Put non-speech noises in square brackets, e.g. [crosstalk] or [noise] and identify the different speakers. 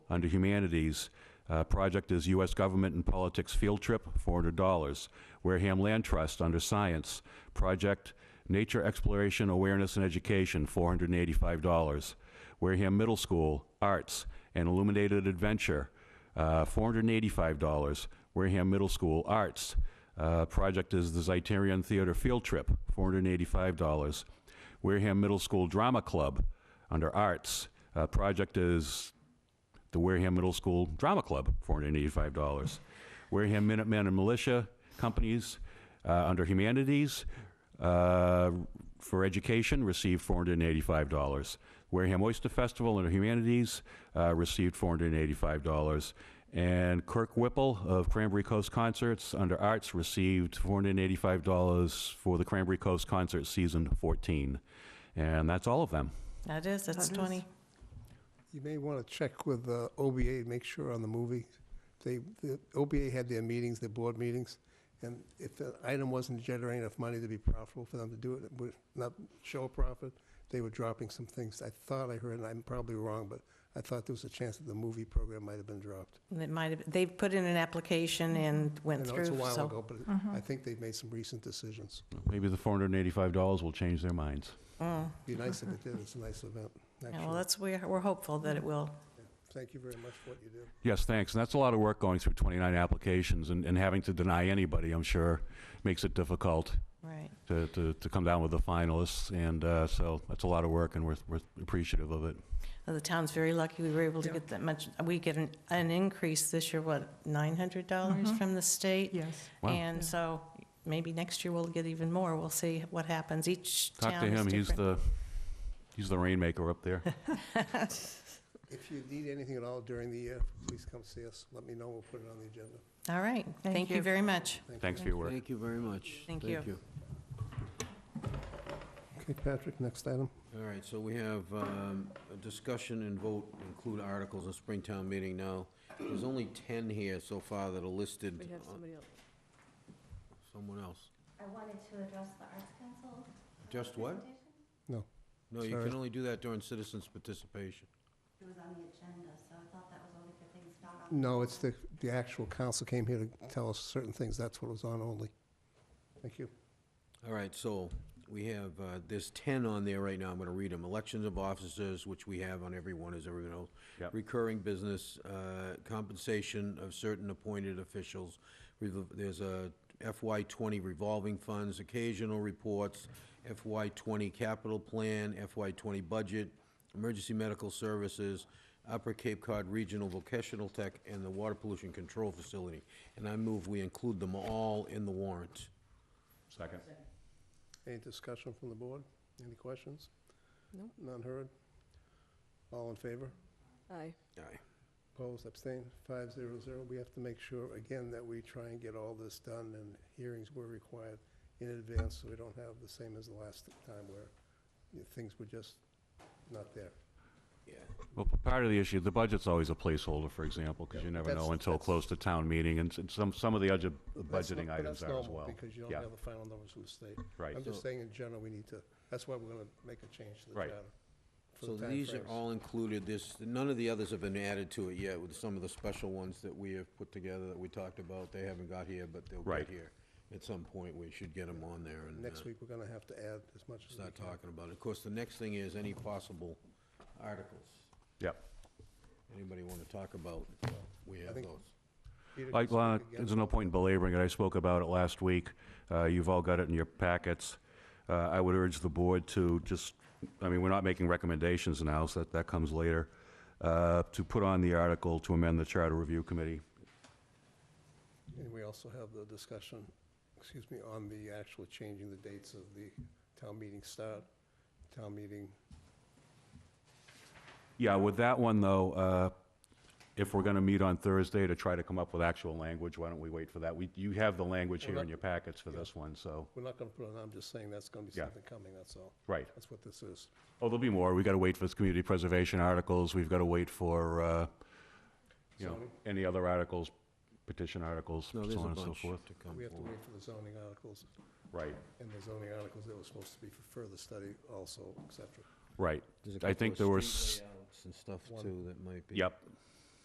Speaker 1: Under Humanities, uh, project is U.S. Government and Politics Field Trip, $400. Wareham Land Trust, under Science, project Nature Exploration, Awareness, and Education, $485. Wareham Middle School, Arts and Illuminated Adventure, uh, $485. Wareham Middle School, Arts. Uh, Project is the Zeitarian Theater Field Trip, $485. Wareham Middle School Drama Club, under Arts. Uh, Project is the Wareham Middle School Drama Club, $485. Wareham Minutemen and Militia Companies, uh, under Humanities, uh, for Education, received $485. Wareham Oyster Festival under Humanities, uh, received $485. And Kirk Whipple of Cranberry Coast Concerts under Arts received $485 for the Cranberry Coast Concert Season 14. And that's all of them.
Speaker 2: That is, that's
Speaker 3: That is.
Speaker 2: 20.
Speaker 4: You may want to check with uh, OBA, make sure on the movie, they, the OBA had their meetings, their board meetings, and if the item wasn't generating enough money to be profitable for them to do it, it would not show a profit, they were dropping some things. I thought I heard, and I'm probably wrong, but I thought there was a chance that the movie program might have been dropped.
Speaker 2: It might have, they've put in an application and
Speaker 4: I
Speaker 2: went
Speaker 4: know
Speaker 2: through,
Speaker 4: it's a while
Speaker 2: so. mm-hmm.
Speaker 4: ago, but I think they've made some recent decisions.
Speaker 1: Maybe the $485 will change their minds.
Speaker 2: Mm.
Speaker 4: Be nice if it did, it's a nice event,
Speaker 2: Yeah, Well,
Speaker 4: actually.
Speaker 2: that's, we're, we're hopeful that it will.
Speaker 4: Thank you very much for what you do.
Speaker 1: Yes, thanks. And that's a lot of work going through 29 applications and, and having to deny anybody, I'm sure, makes it difficult
Speaker 2: Right.
Speaker 1: to, to, to come down with the finalists. And uh, so that's a lot of work, and we're, we're appreciative of it.
Speaker 2: Well, The town's very lucky we were able to
Speaker 3: Yeah.
Speaker 2: get that much. We get an, an increase this year, what, $900
Speaker 3: Mhm.
Speaker 2: from the state?
Speaker 3: Yes.
Speaker 1: Wow.
Speaker 2: And
Speaker 3: Yeah.
Speaker 2: so maybe next year we'll get even more. We'll see what happens. Each
Speaker 1: Talk
Speaker 2: town
Speaker 1: to
Speaker 2: is
Speaker 1: him. He's the
Speaker 2: different.
Speaker 1: he's the rainmaker up
Speaker 2: [laughs]
Speaker 1: there.
Speaker 4: If you need anything at all during the year, please come see us, let me know, we'll put it on the agenda.
Speaker 2: All right.
Speaker 3: Thank
Speaker 2: Thank you
Speaker 3: you.
Speaker 2: very much.
Speaker 1: Thanks for your work.
Speaker 5: Thank you very much.
Speaker 2: Thank you.
Speaker 4: Okay, Patrick, next item.
Speaker 5: All right, so we have um, a discussion and vote, include articles in Springtown meeting now. There's only 10 here so far that are listed.
Speaker 3: We have
Speaker 5: on-
Speaker 3: somebody else.
Speaker 5: Someone else.
Speaker 6: I wanted to address the Arts Council.
Speaker 5: Just what?
Speaker 4: No.
Speaker 5: No, you
Speaker 4: Sorry.
Speaker 5: can only do that during citizens' participation.
Speaker 6: It was on the agenda, so I thought that was only for things not on.
Speaker 4: No, it's the, the actual council came here to tell us certain things, that's what was on only. Thank you.
Speaker 5: All right, so we have, uh, there's 10 on there right now, I'm going to read them. Elections of officers, which we have on every one, as everyone knows.
Speaker 1: Yep.
Speaker 5: Recurring business, uh, compensation of certain appointed officials. Revo- There's a FY '20 revolving funds, occasional reports, FY '20 capital plan, FY '20 budget, emergency medical services, Upper Cape Cod Regional Vocational Tech, and the Water Pollution Control Facility. And I move we include them all in the warrant.
Speaker 1: Second.
Speaker 4: Any discussion from the board? Any questions?
Speaker 3: No.
Speaker 4: None heard? All in favor?
Speaker 3: Aye.
Speaker 5: Aye.
Speaker 4: Opposed, abstained, five zero zero. We have to make sure, again, that we try and get all this done, and hearings were required in advance, so we don't have the same as the last time where you know, things were just not there.
Speaker 5: Yeah.
Speaker 1: Well, p- part of the issue, the budget's always a placeholder, for example, because you never
Speaker 4: That's-
Speaker 1: know until
Speaker 4: that's-
Speaker 1: close to town meeting, and s- and some, some of the other
Speaker 4: That's not-
Speaker 1: budgeting
Speaker 4: but
Speaker 1: items
Speaker 4: that's
Speaker 1: are as
Speaker 4: normal,
Speaker 1: well.
Speaker 4: Because you don't
Speaker 1: Yeah.
Speaker 4: have the final numbers from the state.
Speaker 1: Right.
Speaker 4: I'm just saying in general, we need to, that's why we're gonna make a change to the
Speaker 1: Right.
Speaker 4: charter. for
Speaker 5: So
Speaker 4: the
Speaker 5: these are
Speaker 4: timeframes.
Speaker 5: all included, this, none of the others have been added to it yet, with some of the special ones that we have put together that we talked about, they haven't got here, but they'll
Speaker 1: Right.
Speaker 5: get here. At some point, we should get them on there and uh,
Speaker 4: Next week, we're gonna have to add as much as we
Speaker 5: start
Speaker 4: can.
Speaker 5: talking about it. Of course, the next thing is any possible articles,
Speaker 1: Yep.
Speaker 5: anybody want to talk about, we have
Speaker 4: think-
Speaker 5: those.
Speaker 4: Peter can
Speaker 1: Like, uh,
Speaker 4: speak again.
Speaker 1: there's no point in belaboring it, I spoke about it last week, Uh, you've all got it in your packets. Uh, I would urge the board to just, I mean, we're not making recommendations now, so that, that comes later, uh, to put on the article to amend the Charter Review Committee.
Speaker 4: And we also have the discussion, excuse me, on the actual changing the dates of the town meeting start, town meeting,
Speaker 1: Yeah, with that one, though, uh, if we're going to meet on Thursday to try to come up with actual language, why don't we wait for that? We- You have the language here in your packets for this one, so,
Speaker 4: we're not gonna put it on, I'm just saying that's gonna be
Speaker 1: Yeah.
Speaker 4: something coming, that's all.
Speaker 1: right.
Speaker 4: That's what this is.
Speaker 1: Oh, there'll be more. we got to wait for the community preservation articles. We've got to wait for, uh, you know,
Speaker 4: Zoning.
Speaker 1: any other articles, petition articles, so
Speaker 5: No, there's
Speaker 1: on and
Speaker 5: a
Speaker 1: so
Speaker 5: bunch
Speaker 1: forth.
Speaker 5: to come
Speaker 4: We have to
Speaker 5: forward.
Speaker 4: wait for the zoning articles,
Speaker 1: Right,
Speaker 4: and the zoning articles that were supposed to be for further study also, et cetera.
Speaker 1: right.
Speaker 5: There's a
Speaker 1: I
Speaker 5: couple
Speaker 1: think
Speaker 5: of
Speaker 1: there were
Speaker 5: street
Speaker 1: s-
Speaker 5: layouts And stuff
Speaker 4: One.
Speaker 5: too that might be.
Speaker 1: Yep,